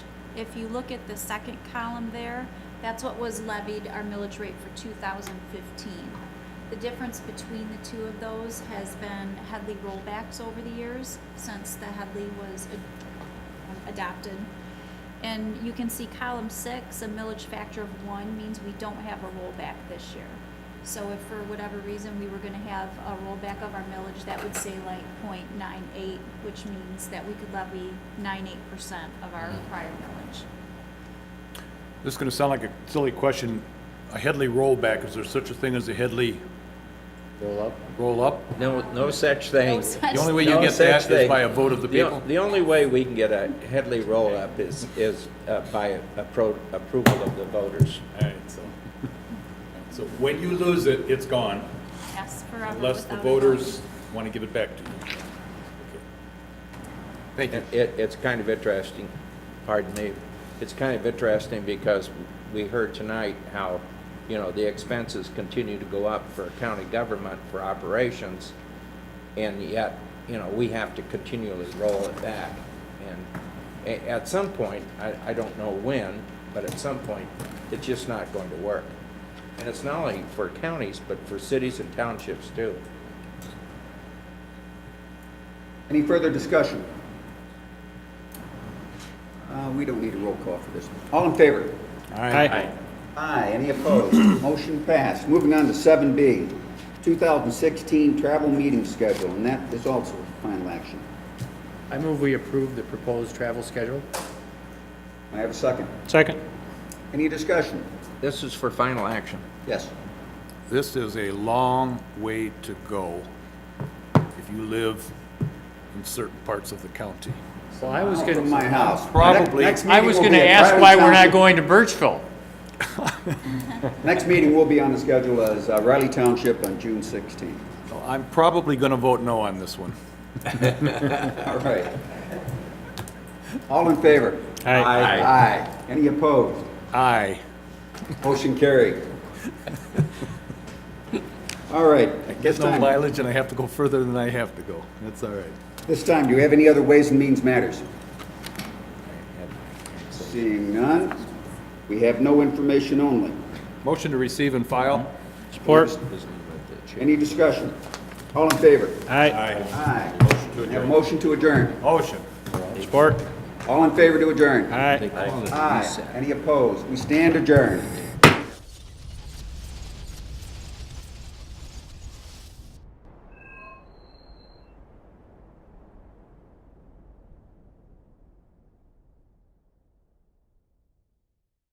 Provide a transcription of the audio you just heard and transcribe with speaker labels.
Speaker 1: If you look at the second column there, that's what was levied, our millage rate for two thousand fifteen. The difference between the two of those has been Headley rollbacks over the years since the Headley was ad- adopted. And you can see column six, a millage factor of one means we don't have a rollback this year. So if for whatever reason we were gonna have a rollback of our millage, that would say like 0.98, which means that we could levy 98 percent of our
Speaker 2: Mm-hmm.
Speaker 1: prior millage.
Speaker 2: This is gonna sound like a silly question. A Headley rollback, is there such a thing as a Headley
Speaker 3: Roll up.
Speaker 2: roll-up?
Speaker 3: No, no such thing.
Speaker 1: No such-
Speaker 2: The only way you get that is by a vote of the
Speaker 3: The o-
Speaker 2: people?
Speaker 3: The only way we can get a Headley roll-up is, is uh, by appro- approval of the voters.
Speaker 2: All right, so, so when you lose it, it's gone,
Speaker 1: Yes, forever
Speaker 2: unless the
Speaker 1: without a vote.
Speaker 2: voters wanna give it back to you. Okay. Thank you.
Speaker 3: It, it- it's kind of interesting, pardon me, it's kind of interesting because we heard tonight how, you know, the expenses continue to go up for county government for operations, and yet, you know, we have to continually roll it back. And a- at some point, I, I don't know when, but at some point, it's just not going to work. And it's not only for counties, but for cities and townships too.
Speaker 4: Any further discussion? Uh, We don't need a roll call for this. All in favor?
Speaker 2: All right.
Speaker 4: Aye. Any opposed? Motion passed. Moving on to seven B, 2016 travel meeting schedule, and that is also final action.
Speaker 5: I move we approve the proposed travel schedule.
Speaker 4: May I have a second?
Speaker 5: Second.
Speaker 4: Any discussion?
Speaker 3: This is for final action.
Speaker 4: Yes.
Speaker 2: This is a long way to go if you live in certain parts of the county.
Speaker 5: Well, I was
Speaker 4: Out From my
Speaker 5: gonna,
Speaker 4: house.
Speaker 2: Probably.
Speaker 4: Next- next
Speaker 5: I
Speaker 4: meeting
Speaker 5: was
Speaker 4: will
Speaker 5: gonna
Speaker 4: be at
Speaker 5: ask
Speaker 4: Riley
Speaker 5: why we're not
Speaker 4: Township.
Speaker 5: going to Birchville.
Speaker 4: Next meeting will be on the schedule as uh, Riley Township on June 16th.
Speaker 2: I'm probably gonna vote no on this one.
Speaker 4: All right. All in favor?
Speaker 3: Aye.
Speaker 4: Aye. Any opposed?
Speaker 2: Aye.
Speaker 4: Motion carried. All right, at this
Speaker 2: Get no
Speaker 4: time,
Speaker 2: mileage and I have to go further than I have to go. That's all right.
Speaker 4: this time, do you have any other Ways and Means Matters? Seeing none, we have no information only.
Speaker 2: Motion to receive and file?
Speaker 5: Support.
Speaker 4: Any discussion? All in favor?
Speaker 5: Aye.
Speaker 4: Aye. Have a motion to adjourn.
Speaker 2: Motion.
Speaker 5: Support.
Speaker 4: All in favor to adjourn?
Speaker 5: Aye.
Speaker 3: Aye.
Speaker 4: Aye. Any opposed? We stand adjourned.